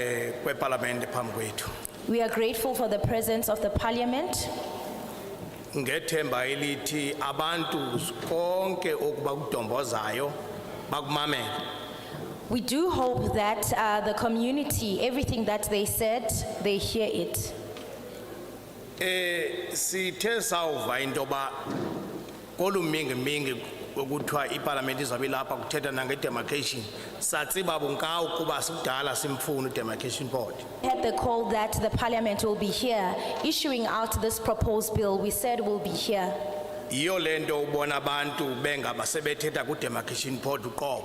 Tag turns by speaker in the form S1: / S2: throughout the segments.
S1: eh, kwepalamende phambi kwethu
S2: We are grateful for the presence of the parliament
S1: ngethemba elithi abantu konke okuba kudombozayo bakumamele
S2: We do hope that uh, the community, everything that they said, they hear it.
S1: eh sithe sawuva intoba kolumingimingi okuthiwa iparlamente izabe lapha kuthetha nangedemarcation satsiba bunkawu kuba sikudala simfuna idemarcation board
S2: We Had the call that the parliament will be here issuing out this proposed bill, we said will be here.
S1: yiyo le nto ubona abantu bengabasebethetha kudemarcation board uqobo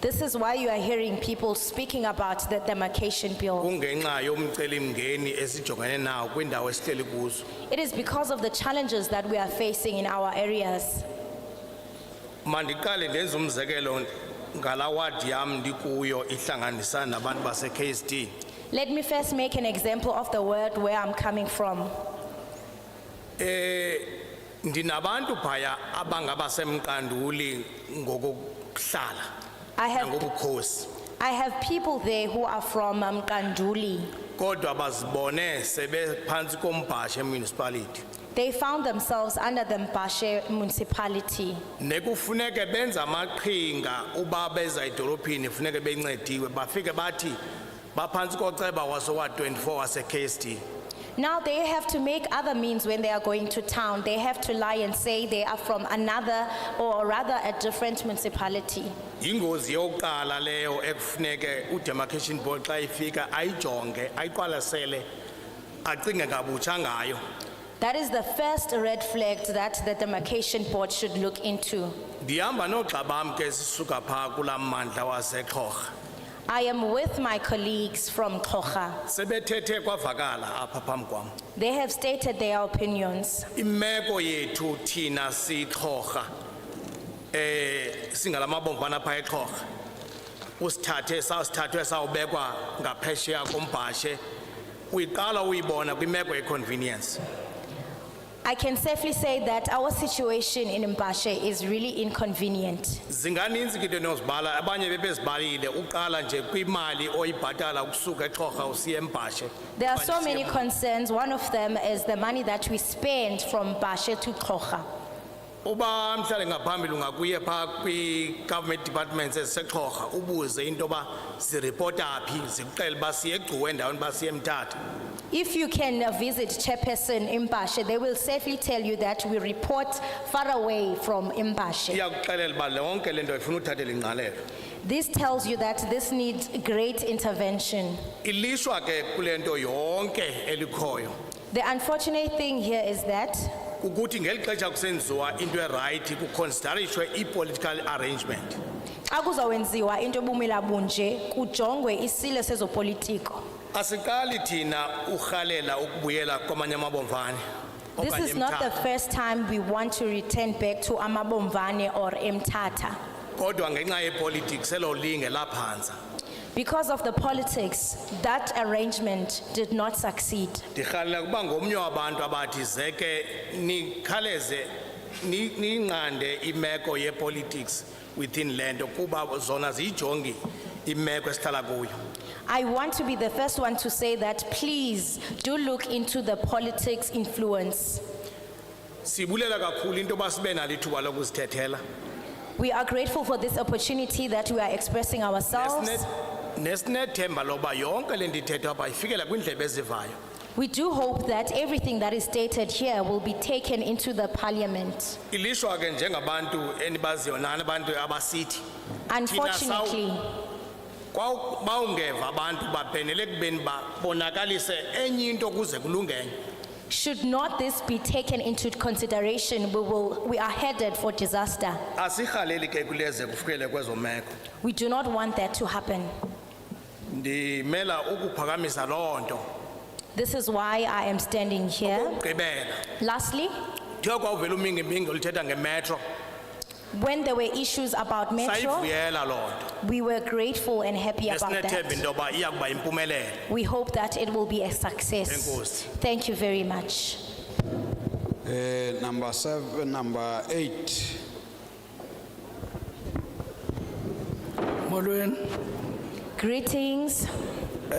S2: This is why you are hearing people speaking about the demarcation bill.
S1: kungenxa yomcelimngeni esijongene nawo kwiindawo esihleli kuzo
S2: It is because of the challenges that we are facing in our areas.
S1: mandiqale ndenze umzekelo ngalaa wadi yam ndikuyo ihlanganisana nabantu base-ksd
S2: Let me first make an example of the word where I'm coming from.
S1: Eh, ndinabantu phaya abangabasemqanduli ngokokuhlala
S2: I have,
S1: nangobukhosi
S2: I have people there who are from um, Kanduli.
S1: kodwa bazibone sebephantsi kombhasha emunicipality
S2: They found themselves under the Mbashe municipality.
S1: nekufuneke benze amaqhinga uba beza edolophini funeke bencediwe bafike bathi baphantsi koceba wasowa-24 wase-ksd
S2: Now they have to make other means when they are going to town. They have to lie and say they are from another or rather a different municipality.
S1: yingozi yokuqala leyo ekufuneke udemarcation board xa ifika ayijonge ayiqwalasele acinge ngabutsha ngayo
S2: That is the first red flag that the demarcation board should look into.
S1: ndihamba noogxa bam ke sisuka phaa kulaa mmandla wasexhorha
S2: I am with my colleagues from Kocha.
S1: sebethethe kwavakala apha phambi kwam
S2: They have stated their opinions.
S1: imeko yethu thina sixhorha eh singalamabomvana phaa exhorha usithathe sasithathwe sawubekwa ngaphesheya kombhashe uyiqala uyibona kwimeko yeconvenience
S2: I can safely say that our situation in Mbashe is really inconvenient.
S1: zinganinzi ke into enozibala abanye bebezibalile uqala nje kwimali oyibhatala ukusuka exhorha usiya embhashe
S2: There are so many concerns. One of them is the money that we spend from Bashe to Kocha.
S1: uba mhlawumbi ngaphambili ungakuye phaa kwi-government departments ezisexhorha ubuze into yoba ziripota phi zikuxele uba siye egcuwe endaweni uba siye emthatha
S2: If you can uh, visit Chairperson Mbashe, they will safely tell you that we report far away from Mbashe.
S1: iyakuxelela uba lonke le nto ifuna uthathela ingqalelo
S2: This tells you that this needs great intervention.
S1: ilishwa ke kule nto yonke elikhoyo
S2: The unfortunate thing here is that
S1: ukuthi ngeli xesha kusenziwa into erayithi kuconsiderishwe i-political arrangement
S2: xa kuzawenziwa into ebumila bunje kujongwe isilo sezopolitiko.
S1: asiqali thina urhalela ukubuyela kwamanye amabomvane
S2: This
S1: okanye
S2: is not the
S1: eMthatha.
S2: first time we want to return back to Amabomvane or Mtata.
S1: kodwa ngenxa yepolitics elo linge laphantsa
S2: Because of the politics, that arrangement did not succeed.
S1: ndirhalela ukuba ngomnye wabantu abathi zeke nikhaleze ni- niyinqande imeko yepolitics within le nto kuba zona ziyijongi imeko esihlala kuyo
S2: I want to be the first one to say that please do look into the politics influence.
S1: sibulela kakhulu into yoba sibe nalo ithuba lokuzithethela
S2: We are grateful for this opportunity that we are expressing ourselves.
S1: Nesine- nesinethemba loba yonke le nto ithethwa apha ifikela kwiindlebe ezivayo
S2: We do hope that everything that is stated here will be taken into the parliament.
S1: ilishwa ke njengabantu enibaziyo nani abantu abasithi
S2: Unfortunately,
S1: Kwaw- bawungeva abantu babhenele kubeni babonakalise enye into kuze kulungenye
S2: should not this be taken into consideration, we will, we are headed for disaster.
S1: asirhaleli ke kuleze kufikele kwezo meko
S2: We do not want that to happen.
S1: ndimela ukuphakamisa loo nto
S2: This is why I am standing here.
S1: gqibela
S2: Lastly,
S1: thiyo kwawuvela umingimingi oluthetha ngemetro
S2: when there were issues about Metro,
S1: sayivuyela loo nto
S2: we were grateful and happy about
S1: nesinethemba
S2: that.
S1: into yoba iya kuba yimpumelelo
S2: We hope that it will be a success.
S1: Enkosi.
S2: Thank you very much.
S3: Eh, number seven, number eight.
S4: Molweni,
S2: Greetings.